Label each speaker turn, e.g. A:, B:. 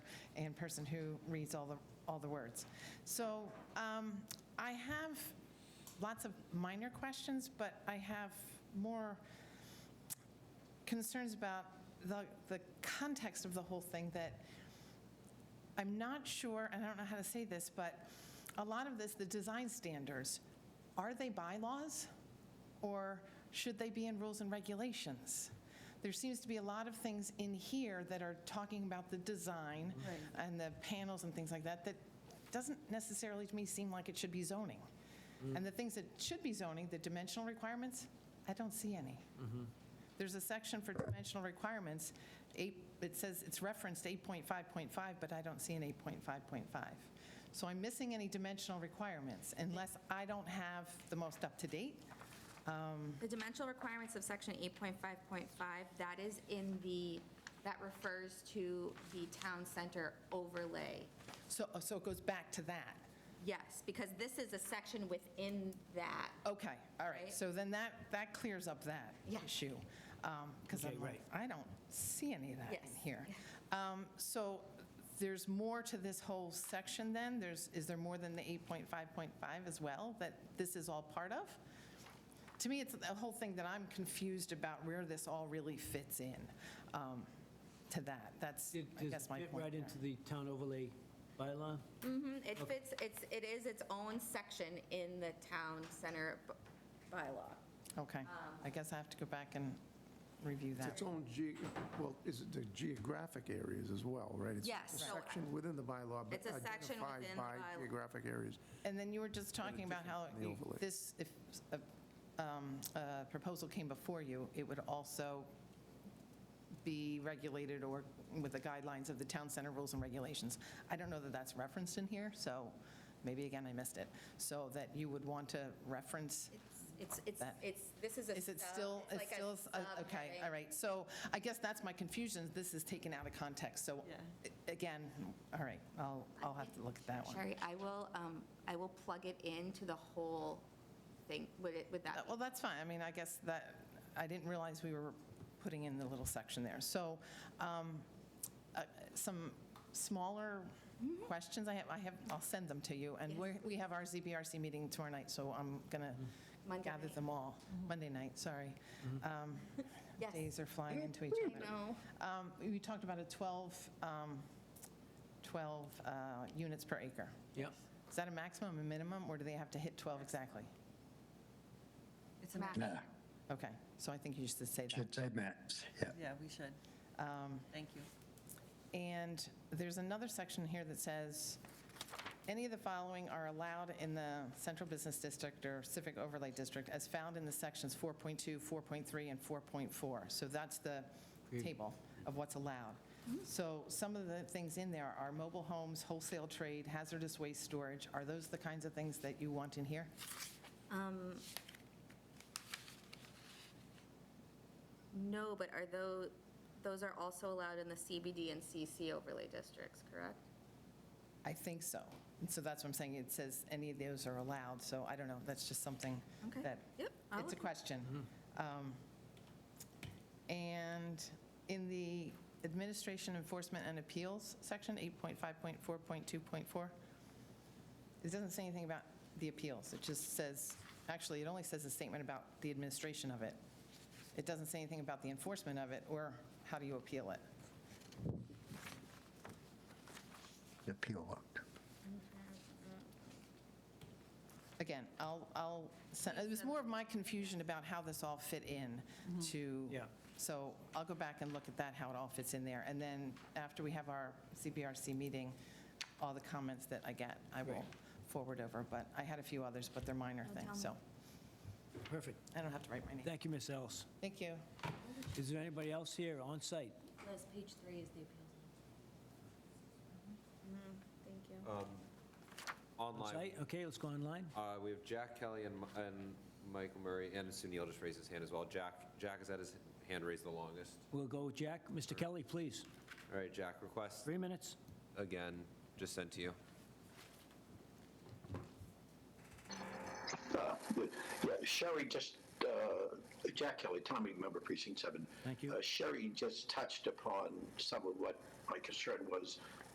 A: person who reads all the, all the words. So um, I have lots of minor questions, but I have more concerns about the, the context of the whole thing that I'm not sure, and I don't know how to say this, but a lot of this, the design standards, are they bylaws? Or should they be in rules and regulations? There seems to be a lot of things in here that are talking about the design and the panels and things like that, that doesn't necessarily to me seem like it should be zoning. And the things that should be zoning, the dimensional requirements, I don't see any. There's a section for dimensional requirements, eight, it says, it's referenced 8.5.5, but I don't see an 8.5.5. So I'm missing any dimensional requirements unless I don't have the most up-to-date.
B: The dimensional requirements of section 8.5.5, that is in the, that refers to the town center overlay.
A: So, oh, so it goes back to that.
B: Yes, because this is a section within that.
A: Okay, all right.
B: Right.
A: So then that, that clears up that
B: Yeah.
A: issue. Because
C: Okay,
A: I'm like,
C: right.
A: I don't see any of that in
B: Yes.
A: here. Um, So there's more to this whole section then? There's, is there more than the 8.5.5 as well that this is all part of? To me, it's the whole thing that I'm confused about where this all really fits in um, to that. That's,
C: It
A: I
C: does
A: guess, my
C: fit
A: point.
C: right
A: there.
C: into the town overlay bylaw?
B: Mhm, It fits, it's, it is its own section in the town center b- bylaw. Um,
A: Okay. I guess I have to go back and review
D: It's
A: that.
D: its own ge, well, is it the geographic areas as well, right? It's
B: Yes,
D: a
B: so-
D: section within the bylaw, but
B: It's a section
D: identified
B: within the
D: by
B: bylaw.
D: geographic areas.
A: And then you were just talking about how
D: different than the
A: you-
D: overlay.
A: this, if a um, a proposal came before you, it would also be regulated or with the guidelines of the town center rules and regulations. I don't know that that's referenced in here, so maybe again, I missed it. So that you would want to reference,
B: It's, it's,
A: That-
B: it's, this is a.
A: is it
B: sub-
A: still,
B: it's
A: it's
B: like a
A: still, a- okay,
B: subheading.
A: all right. So I guess that's my confusion, this is taken out of context. So a- again, all right, I'll, I'll have to look at that one.
B: Sherry, I will, um, I will plug it into the whole thing, would it, would
A: Uh,
B: that?
A: Well, that's fine. I mean, I guess that, I didn't realize we were putting in the little section there. So um, uh, some smaller questions I have, I have, I'll send them to you. And
B: Mm-hmm. Yes.
A: we're- we have our ZBRC meeting tomorrow night, so I'm going to
B: Mm-hmm. Monday
A: gather
B: night. Mm-hmm.
A: them all. Monday night, sorry. Um,
B: Yes.
A: Days are flying into each
B: I
A: other.
B: know.
A: Um, We talked about a 12, um, 12 uh, units per acre.
C: Yep.
A: Is that a maximum, a minimum, or do they have to hit 12 exactly?
E: It's a
B: Max.
E: max.
F: Nah,
A: Okay, so I think you should say that.
F: should say maps, yeah.
E: Yeah, we should. Thank you.
A: And there's another section here that says, "Any of the following are allowed in the Central Business District or Civic Overlay District as found in the sections 4.2, 4.3, and 4.4." So that's the
C: Great.
A: table of what's allowed. So some of the things in there are mobile homes, wholesale trade, hazardous waste storage. Are those the kinds of things that you want in here?
B: Um, No, but are those, those are also allowed in the CBD and CC overlay districts, correct?
A: I think so. And so that's what I'm saying, it says any of those are allowed, so I don't know, that's just something
B: Okay.
A: that,
B: Yep, I'll
A: it's a
B: look.
A: question. Um, And in the Administration Enforcement and Appeals section, 8.5.4.2.4, it doesn't say anything about the appeals, it just says, actually, it only says a statement about the administration of it. It doesn't say anything about the enforcement of it, or how do you appeal it?
F: The appeal looked.
A: Again, I'll, I'll, send- it was more of my confusion about how this all fit in to.
C: Yeah.
A: So I'll go back and look at that, how it all fits in there. And then after we have our CBRC meeting, all the comments that I get, I will
C: Great.
A: forward over. But I had a few others, but they're minor things, so
C: Perfect.
A: I don't have to write my name.
C: Thank you, Ms. Ellis.
A: Thank you.
C: Is there anybody else here on site?
G: Liz, page three is the appeals.
B: Mm-hmm. Thank you.
C: On
H: Online,
C: site? Okay, let's go online.
H: uh, we have Jack Kelly and Mi- and Michael Murray, and Sunil just raised his hand as well. Jack, Jack has had his hand raised the longest.
C: We'll go with Jack. Mr. Kelly, please.
H: All right, Jack, request
C: Three minutes.
H: again, just sent to you.
I: But, uh, yeah, Sherry just, uh, Jack Kelly, town meeting member, precinct seven.
C: Thank you.
I: Uh, Sherry just touched upon some of what my concern was